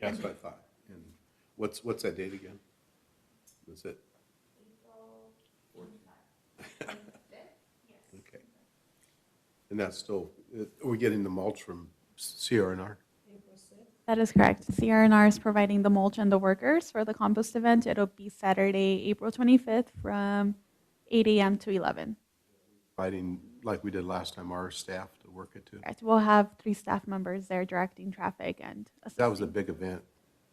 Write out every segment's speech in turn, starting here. That's what I thought. And what's, what's that date again? That's it? Okay. And that's still, are we getting the mulch from CRNR? That is correct. CRNR is providing the mulch and the workers for the compost event. It'll be Saturday, April 25th from 8 a.m. to 11. Fighting, like we did last time, our staff to work it to? Correct. We'll have three staff members there directing traffic and That was a assisting. big event,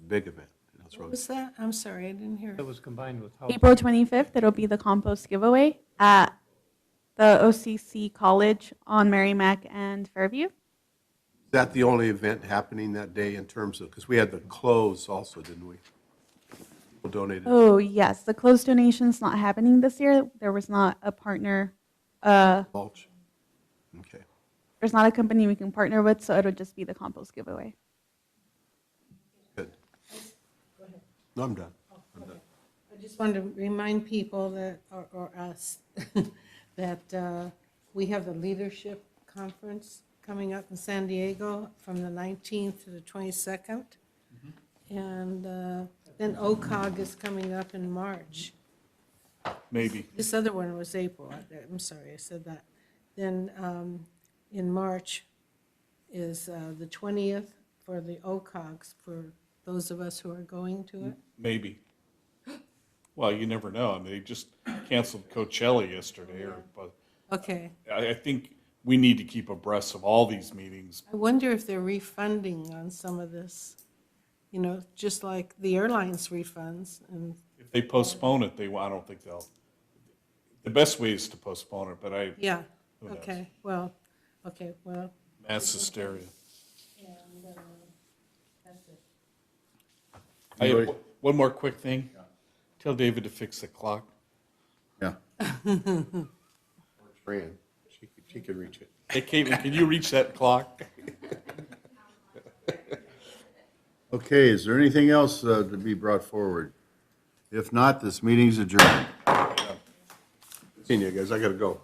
big event. And that's what I What was- was that? I'm sorry, I didn't hear. That was combined with how April 25th, it'll be the compost giveaway at the OCC College on Merrimack and Fairview. Is that the only event happening that day in terms of, because we had the clothes also, didn't we? People donated. Oh, yes, the closed donation's not happening this year. There was not a partner, uh, Mulch? Okay. there's not a company we can partner with, so it'll just be the compost giveaway. Good. No, I'm done. I'm done. I just wanted to remind people that, or, or us, that uh, we have the leadership conference coming up in San Diego from the 19th to the 22nd. And uh, then OCOG is coming up in March. Maybe. This other one was April, I- I'm sorry, I said that. Then um, in March is uh, the 20th for the OCOGs, for those of us who are going to it. Mm-hmm. Maybe. Well, you never know. I mean, they just canceled Coachella yesterday, or but Okay, I, I think we need to keep abreast of all these meetings. I wonder if they're refunding on some of this, you know, just like the airlines refunds, and If they postpone it, they I don't think they'll. The best way is to postpone it, but I yeah, Who knows? okay, well, okay, well, mass hysteria. that's it. I You have already- one more quick thing. Tell David to fix the clock. Yeah. Fran, she could, she could reach it. Hey, Caitlin, can you reach that clock? Okay, is there anything else uh, to be brought forward? If not, this meeting's adjourned. Seeing you guys, I gotta go.